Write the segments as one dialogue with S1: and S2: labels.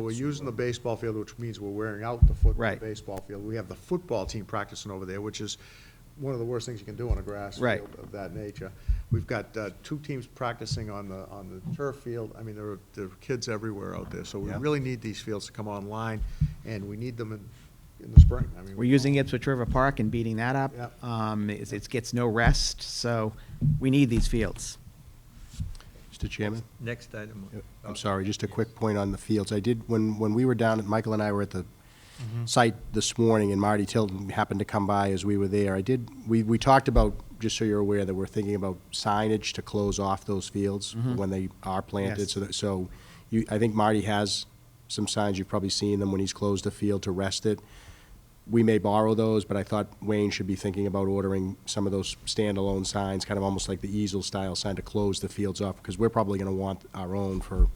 S1: We're using the baseball field, which means we're wearing out the foot, the
S2: Right.
S1: baseball field. We have the football team practicing over there, which is one of the worst things you can do on a grass
S2: Right.
S1: field of that nature. We've got uh, two teams practicing on the, on the turf field. I mean, there are, there are kids everywhere out there, so we
S2: Yeah.
S1: really need these fields to come online, and we need them in, in the spring. I mean,
S2: We're using Ipswich River Park and beating that
S1: Yep.
S2: up. Um, it's- It gets no rest, so we need these fields.
S3: Mr. Chairman?
S4: Next item.
S3: I'm sorry, just a quick point on the fields. I did, when, when we were down, Michael and I were at the site this morning, and Marty Tilden happened to come by as we were there. I did, we, we talked about, just so you're aware, that we're thinking about signage to close off those fields when they are planted.
S2: Yes.
S3: So, that- so you, I think Marty has some signs, you've probably seen them when he's closed a field to rest it. We may borrow those, but I thought Wayne should be thinking about ordering some of those standalone signs, kind of almost like the easel-style sign to close the fields off, because we're probably going to want our own for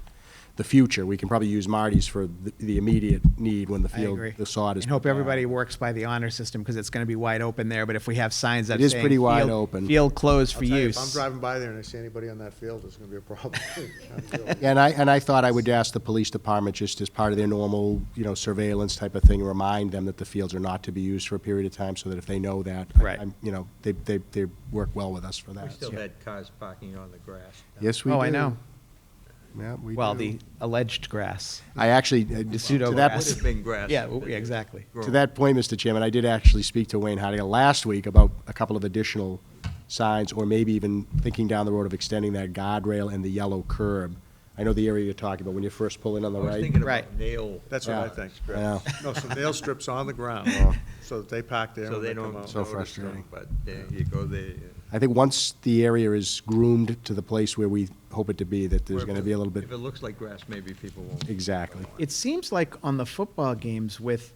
S3: the future. We can probably use Marty's for the- the immediate need when the
S2: I
S3: field,
S2: agree.
S3: the sod is.
S2: And hope everybody works by the honor system, because it's going to be wide open there, but if we have signs that
S3: It is
S2: saying
S3: pretty wide
S2: field-
S3: open.
S2: Field closed
S1: I'll
S2: for
S1: tell you, If I'm
S2: use.
S1: driving by there and I see anybody on that field, it's gonna be a problem.
S3: And I, and I thought I would ask the police department, just as part of their normal, you know, surveillance type of thing, remind them that the fields are not to be used for a period of time, so that if they know that. I-
S2: Right.
S3: I'm- You know, they, they, they work well with us for that.
S4: We still
S3: so.
S4: had cars parking on the grass.
S3: Yes, we do.
S2: Oh, I know.
S3: Yeah, we do.
S2: Well, the alleged grass.
S3: I actually, uh,
S2: The
S3: to
S2: pseudo
S3: that,
S2: grass.
S4: Would have been grass.
S2: Yeah, w- yeah, exactly.
S3: to that point, Mr. Chairman, I did actually speak to Wayne Harding last week about a couple of additional signs, or maybe even thinking down the road of extending that guardrail and the yellow curb. I know the area you're talking about, when you first pull in on
S4: I
S3: the
S4: was
S3: right.
S4: thinking
S2: Right.
S4: about nail.
S1: That's what I
S3: Yeah.
S1: think.
S3: Yeah.
S1: No, some nail strips on the ground, so that they pack there
S4: So
S1: when
S4: they
S1: they come out.
S4: don't.
S3: So
S4: notice them,
S3: frustrating.
S4: But uh, you go there.
S3: I think once the area is groomed to the place where we hope it to be, that there's gonna be a little bit,
S4: If it looks like grass, maybe people won't.
S3: exactly.
S2: It seems like on the football games with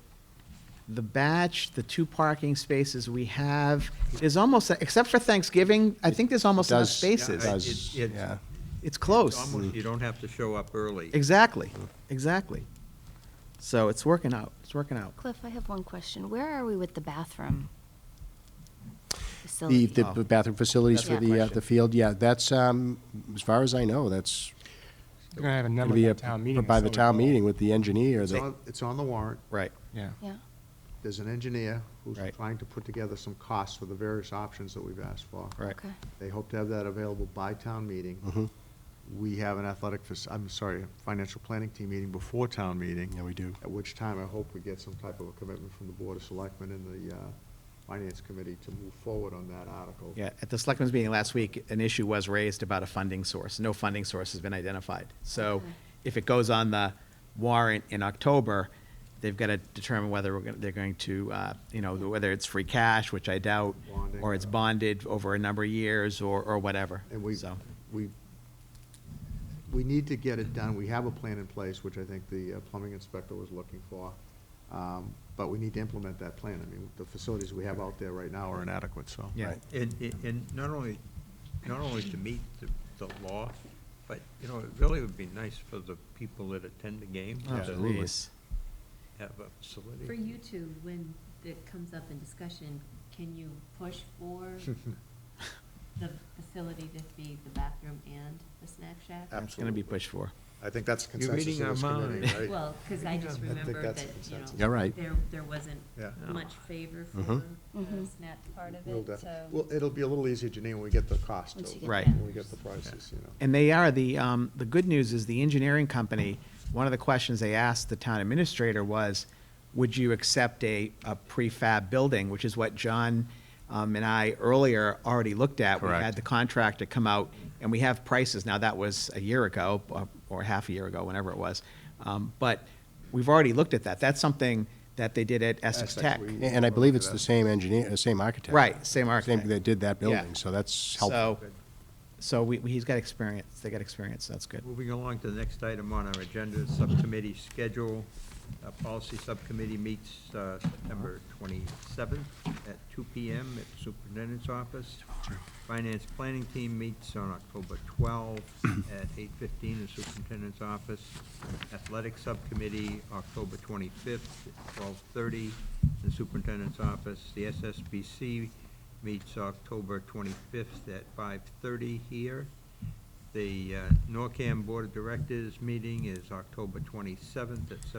S2: the batch, the two parking spaces we have, there's almost, except for Thanksgiving, I think there's almost enough
S3: does- it
S4: Yeah, I-
S2: spaces.
S3: does.
S4: it's- it's-
S3: yeah.
S2: It's
S4: it's
S2: close.
S4: almost- You don't have to show up early.
S2: Exactly, exactly. So it's working out, it's working out.
S5: Cliff, I have one question. Where are we with the bathroom?
S3: The,
S5: facility?
S3: the
S2: Oh.
S3: bathroom facilities
S5: That's
S3: for
S5: my
S3: the, uh,
S2: question.
S3: the field, yeah, that's, um, as far as I know, that's
S6: They're gonna have a
S3: gonna
S6: number
S3: be
S6: by
S3: a,
S6: town meeting.
S3: by
S6: that's
S3: the
S6: so
S3: town
S6: important.
S3: meeting with the engineer.
S1: It's
S3: that-
S1: on, it's on the warrant.
S2: Right.
S6: Yeah.
S5: Yeah,
S1: There's an engineer who's
S2: Right.
S1: trying to put together some costs for the various options that we've asked for.
S2: Right.
S5: okay.
S1: They hope to have that available by town meeting.
S3: Mhm.
S1: We have an athletic, fac- I'm sorry, a financial planning team meeting before town meeting.
S3: Yeah, we do.
S1: At which time I hope we get some type of a commitment from the Board of Selectmen and the uh, Finance Committee to move forward on that article.
S2: Yeah, at the selectmen's meeting last week, an issue was raised about a funding source. No funding source has been identified. So
S5: Okay.
S2: if it goes on the warrant in October, they've got to determine whether we're gonna- they're going to, uh, you know, whether it's free cash, which I doubt,
S1: Bonding. uh,
S2: or it's bonded over a number of years, or, or whatever.
S1: And we,
S2: So,
S1: we, we need to get it done. We have a plan in place, which I think the uh, plumbing inspector was looking for. Um, But we need to implement that plan. I mean, the facilities we have out there right now are inadequate, so.
S2: yeah.
S3: Right.
S4: And, and- and not only, not only to meet the, the law, but, you know, it really would be nice for the people that attend the game to
S2: Oh,
S3: Absolutely.
S2: geez.
S4: have a facility.
S7: For you two, when it comes up in discussion, can you push for the facility to be the bathroom and the snack shack?
S1: Ab-
S2: It's going to be pushed for.
S1: I think that's the
S4: You're
S1: consensus
S4: reading
S1: of this
S4: our
S1: committee,
S4: mind.
S1: right?
S7: Well, because I just
S1: I think
S7: remember
S1: that's
S7: that,
S1: the
S7: you know.
S1: consensus.
S3: You're right.
S7: There, there wasn't
S1: Yeah.
S4: No.
S7: much favor for
S3: Mhm.
S7: the
S5: Mhm.
S7: snack part of
S1: We'll
S7: it,
S1: def-
S7: so.
S1: Well, it'll be a little easier, Janine, when we get the cost.
S5: Once you
S1: of-
S5: get
S2: Right.
S5: that.
S1: When we get the prices, you know.
S2: And they are, the, um, the good news is the engineering company, one of the questions they asked the town administrator was, would you accept a, a prefab building, which is what John, um, and I earlier already looked at. We had
S3: Correct.
S2: the contractor come out, and we have prices, now that was a year ago, or- or half a year ago, whenever it was. Um, but we've already looked at that, that's something that they did at Essex
S1: Essex,
S2: Tech.
S1: we-
S3: And I believe it's the same engineer, the same architect.
S2: Right, same architect.
S3: Same that did that
S2: Yeah.
S3: building, so that's helpful.
S2: So, so we, he's got experience, they got experience, so that's good.
S4: Moving along to the next item on our agenda, subcommittee schedule. Uh, Policy Subcommittee meets uh, September 27th at 2 PM at Superintendent's Office. Finance Planning Team meets on October 12th at 8:15 in Superintendent's Office. Athletic Subcommittee, October 25th at 12:30 in Superintendent's Office. The SSBC meets October 25th at 5:30 here. The uh, NORCAM Board of Directors meeting is October twenty-seventh at seven